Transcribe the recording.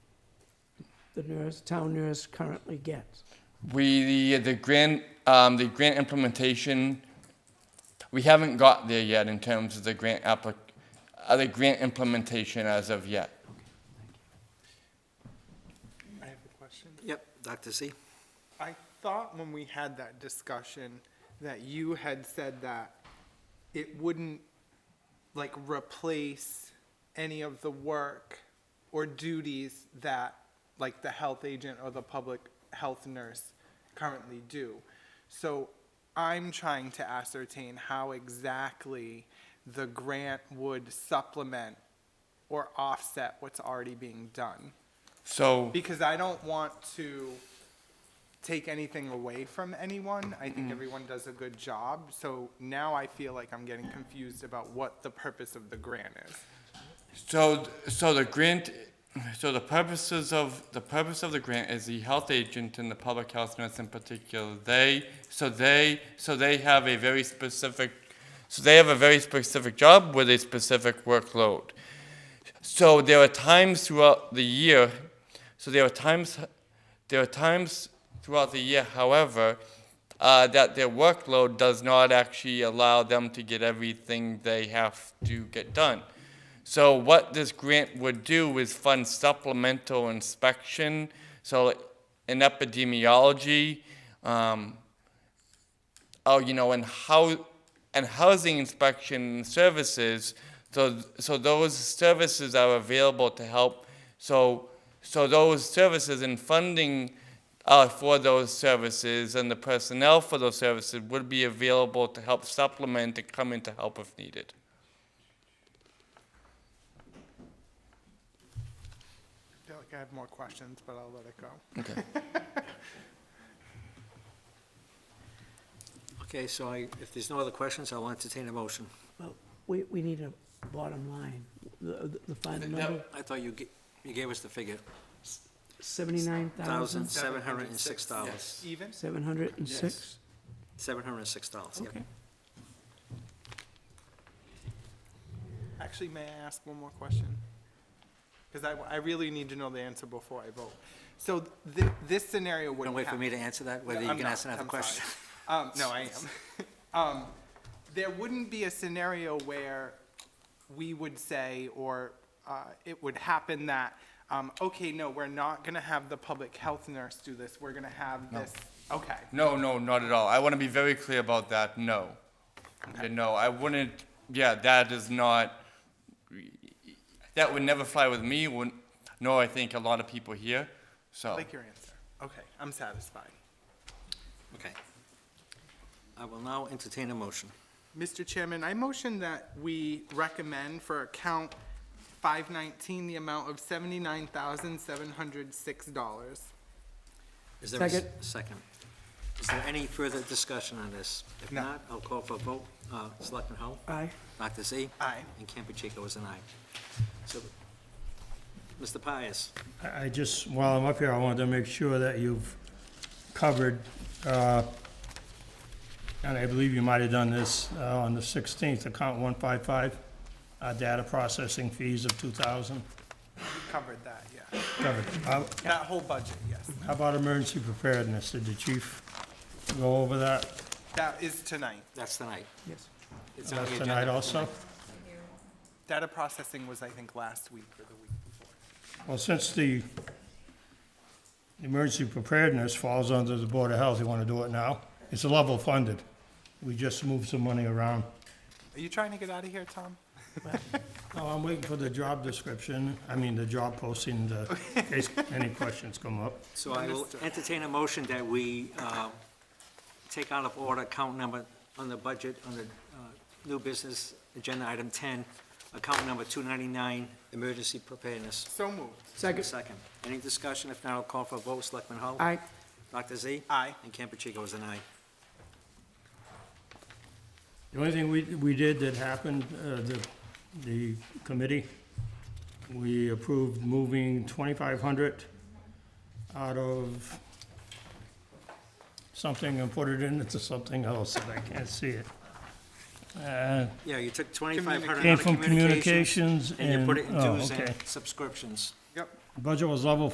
the nurse, town nurse currently gets? We, the, the grant, um, the grant implementation, we haven't got there yet in terms of the grant applic, uh, the grant implementation as of yet. I have a question. Yep, Dr. Z. I thought when we had that discussion that you had said that it wouldn't like replace any of the work or duties that like the health agent or the public health nurse currently do. So I'm trying to ascertain how exactly the grant would supplement or offset what's already being done. So, because I don't want to take anything away from anyone. I Mm-hmm. think everyone does a good job. So now I feel like I'm getting confused about what the purpose of the grant is. so, so the grant, so the purposes of, the purpose of the grant is the health agent and the public health nurse in particular, they, so they, so they have a very specific, so they have a very specific job with a specific workload. So there are times throughout the year. So there are times. There are times throughout the year, however, uh, that their workload does not actually allow them to get everything they have to get done. So what this grant would do is fund supplemental inspection. So in epidemiology. Um, oh, you know, and how and housing inspection services. So so those services are available to help. So so those services and funding uh, for those services and the personnel for those services would be available to help supplement and come in to help if needed. I feel like I have more questions, but I'll let it go. Okay, so I, if there's no other questions, I'll entertain a motion. Well, we, we need a bottom line, the, the final number, I thought you, ga- you gave us the figure, seventy-nine thousand, thousand, seven hundred and six dollars. Even? seven hundred and six? Seven hundred and six dollars, yep. Okay. Actually, may I ask one more question? Because I, I really need to know the answer before I vote. So th- this scenario Don't wouldn't wait for me to happen. answer that, whether you I'm can not. ask another I'm question. sorry. Um, no, I am. um, there wouldn't be a scenario where we would say, or uh, it would happen that, um, okay, no, we're not going to have the public health nurse do this. We're going to have this. Okay. No, no, not at all. I want to be very clear about that. No, Yeah, no, I wouldn't. Yeah, that is not. That would never fly with me. Would, no, I think a lot of people here. So. Like your answer. Okay. I'm satisfied. Okay. I will now entertain a motion. Mr. Chairman, I motion that we recommend for account 519 the amount of $79,706. Is there a s- Second. Second. Is there any further discussion on this? If No. not, I'll call for a vote. Uh, Selectman Hull? Aye. Dr. Z? Aye. And Campuchico is an aye. So, Mr. Pius, I I just, while I'm up here, I wanted to make sure that you've covered, uh, and I believe you might have done this uh, on the 16th, account 155, uh, data processing fees of 2,000. Covered that, yeah. Covered. How That whole budget, yes. how about emergency preparedness? Did the chief go over that That is tonight. that's the night. Yes. It's on the last agenda night for also? Data processing was, I think, last week or the week before. Well, since the emergency preparedness falls under the Board of Health, you want to do it now? It's level funded. We just moved some money around. Are you trying to get out of here, Tom? No, Oh, I'm waiting for the job description, I mean, the job posting, the, in case any questions come up. So I will entertain a motion that we uh, take out of order account number on the budget, on the uh, new business, agenda item 10, account number 299, emergency preparedness. So moved. Second, Second. Any discussion? If not, I'll call for a vote. Selectman Hull? aye, Dr. Z? Aye. And Campuchico is an aye. The only thing we, we did that happened, uh, the, the committee, we approved moving twenty-five hundred out of something and put it into something else, and I can't see it. Uh, Yeah, you took 2,500 Came out of from communications. communications and. And you put it in oh, dues okay. and subscriptions. Yep. Budget was level